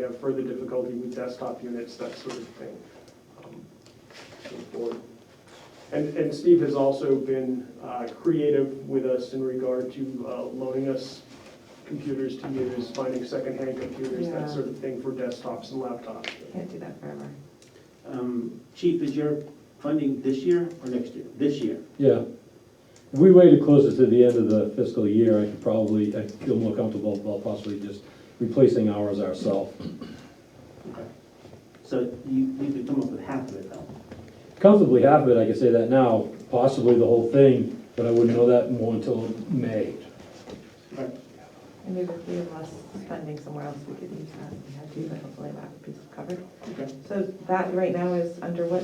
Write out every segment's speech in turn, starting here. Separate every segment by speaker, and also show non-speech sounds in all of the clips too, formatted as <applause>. Speaker 1: have further difficulty with desktop units, that sort of thing. um, so forth. And, and Steve has also been uh, creative with us in regard to uh, loaning us computers to use, finding secondhand computers,
Speaker 2: Yeah.
Speaker 1: that sort of thing for desktops and laptops.
Speaker 2: Can't do that forever.
Speaker 3: Um, Chief, is your funding this year or next year? This year.
Speaker 4: Yeah. If we waited closer to the end of the fiscal year, I could probably, I feel more comfortable about possibly just replacing ours ourselves.
Speaker 3: So you, you could come up with half of it though.
Speaker 4: Comfortably half of it, I could say that now, possibly the whole thing, but I wouldn't know that more until May.
Speaker 2: And maybe if we have less spending somewhere else, we could use that, if we had to, but hopefully that would be covered.
Speaker 1: Okay.
Speaker 2: So that right now is under what,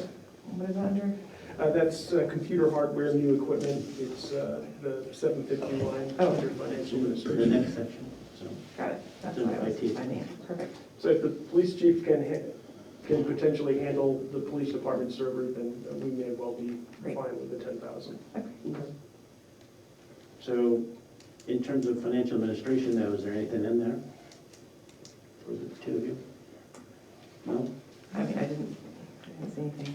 Speaker 2: what is it under?
Speaker 1: Uh, That's uh, computer hardware, new equipment, it's uh, the 750 line
Speaker 2: Oh.
Speaker 1: under financial
Speaker 3: The
Speaker 1: administration.
Speaker 3: next section, so.
Speaker 2: Got it, that's
Speaker 3: Under
Speaker 2: what I was
Speaker 3: IT.
Speaker 2: finding, perfect.
Speaker 1: So if the police chief can, ha- can potentially handle the police department server, then uh, we may well be
Speaker 2: Great.
Speaker 1: fine with the 10,000.
Speaker 3: So in terms of financial administration though, is there anything in there? For the two of you? No?
Speaker 2: I mean, I didn't, I didn't see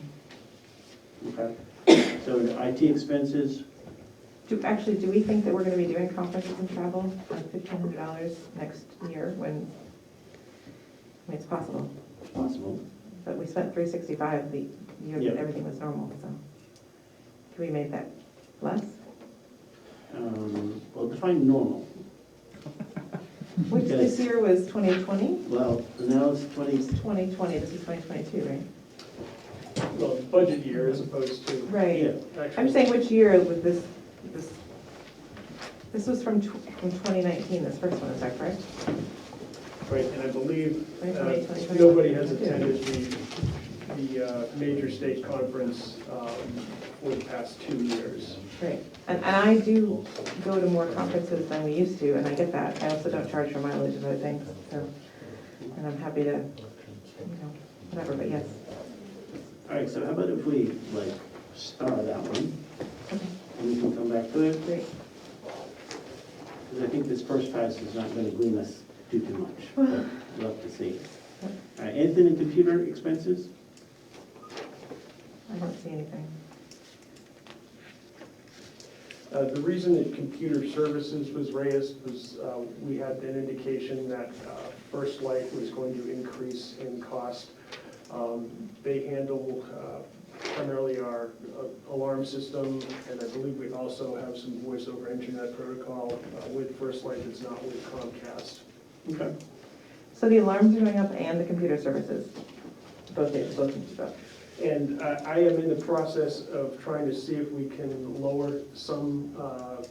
Speaker 2: anything.
Speaker 3: Okay. So the IT expenses,
Speaker 2: Do, actually, do we think that we're gonna be doing conferences and travel for fifteen hundred dollars next year when, I mean, it's possible,
Speaker 3: possible.
Speaker 2: but we spent three sixty-five the year
Speaker 3: Yeah.
Speaker 2: that everything was normal, so. Can we make that less?
Speaker 3: Um, Well, define normal.
Speaker 2: Which
Speaker 3: Okay.
Speaker 2: this year was twenty twenty?
Speaker 3: Well, now it's twenty,
Speaker 2: It's twenty twenty, this is twenty twenty-two, right?
Speaker 1: Well, budget year as opposed to
Speaker 3: yeah.
Speaker 1: actual.
Speaker 2: I'm saying which year was this, this, this was from tw- from twenty nineteen, this first one, is that correct?
Speaker 1: Right, and I believe
Speaker 2: Twenty
Speaker 1: uh,
Speaker 2: twenty, twenty twenty-one?
Speaker 1: nobody has attended the, the uh, major state conference um, for the past two years.
Speaker 2: Right, and, and I do go to more conferences than we used to, and I get that, I also don't charge for mileage and other things, so, and I'm happy to, you know, whatever, but yes.
Speaker 3: All right, so how about if we like star that one? And we can come back to it,
Speaker 2: Great.
Speaker 3: because I think this first pass is not going to glean us too, too much.
Speaker 2: <sighs>
Speaker 3: but We'll have to see. All right, anything in computer expenses?
Speaker 2: I don't see anything.
Speaker 1: Uh, The reason that computer services was raised was uh, we had an indication that uh, First Light was going to increase in cost. Um, They handle uh, primarily our uh, alarm system, and I believe we also have some voice over internet protocol uh, with First Light that's not with Comcast.
Speaker 3: Okay.
Speaker 2: So the alarms are going up and the computer services, both, days, both of them.
Speaker 1: And I I am in the process of trying to see if we can lower some uh,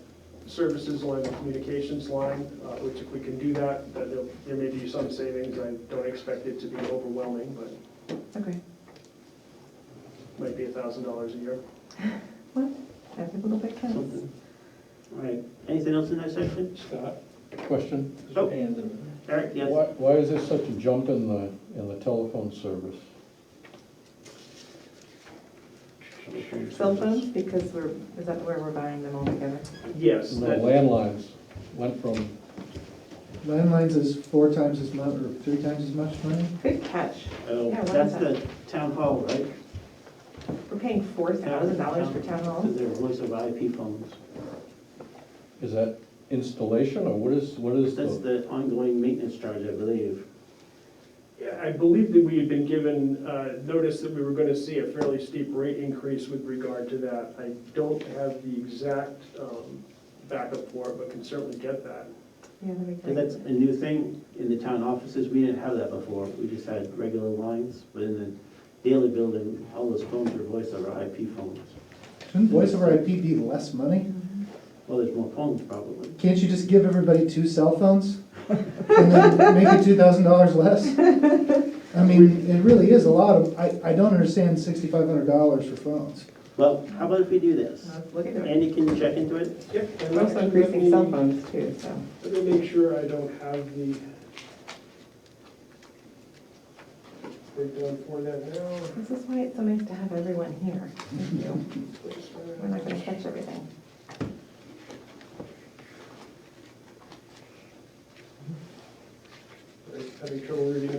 Speaker 1: services along the communications line, uh, which if we can do that, that there'll- there may be some savings. I don't expect it to be overwhelming, but
Speaker 2: Okay,
Speaker 1: might be a thousand dollars a year.
Speaker 2: every little bit counts.
Speaker 3: Something. All right, anything else in that section?
Speaker 5: Scott, question?
Speaker 3: Oh.
Speaker 5: And
Speaker 3: Eric, yes?
Speaker 5: Why, why is there such a jump in the, in the telephone service?
Speaker 2: Cell phones, because we're, is that where we're buying them all together?
Speaker 1: Yes,
Speaker 5: The
Speaker 1: that-
Speaker 5: landlines went from,
Speaker 6: Landlines is four times as much, or three times as much money?
Speaker 2: Good catch,
Speaker 3: Oh,
Speaker 2: Yeah, why
Speaker 3: That's
Speaker 2: not?
Speaker 3: the town hall, right?
Speaker 2: we're paying four thousand dollars for town hall.
Speaker 3: Because they're voice over IP phones.
Speaker 5: is that installation, or what is, what is
Speaker 4: Oh.
Speaker 3: That's
Speaker 5: the?
Speaker 3: the ongoing maintenance charge, I believe.
Speaker 1: yeah, I believe that we had been given uh, notice that we were going to see a fairly steep rate increase with regard to that. I don't have the exact um, backup for it, but can certainly get that.
Speaker 2: Yeah, that makes
Speaker 3: And that's
Speaker 2: sense.
Speaker 3: a new thing in the town offices, we didn't have that before, we just had regular lines, but in the daily building, all those phones are voice over IP phones.
Speaker 6: Shouldn't voice over IP be less money?
Speaker 3: Well, there's more phones probably.
Speaker 6: Can't you just give everybody two cell phones? And then make it two thousand dollars less? I mean, it really is a lot of, I, I don't understand sixty-five hundred dollars for phones.
Speaker 3: Well, how about if we do this?
Speaker 2: Let's Oh, look at it.
Speaker 3: Andy, can you check into it?
Speaker 1: Yep. and
Speaker 2: We're also
Speaker 1: actually, let
Speaker 2: increasing cell
Speaker 1: me-
Speaker 2: phones too, so.
Speaker 1: Let me make sure I don't have the breakdown for that now.
Speaker 2: This is why it's so nice to have everyone here. Thank you. We're not gonna catch everything.
Speaker 1: Having trouble reading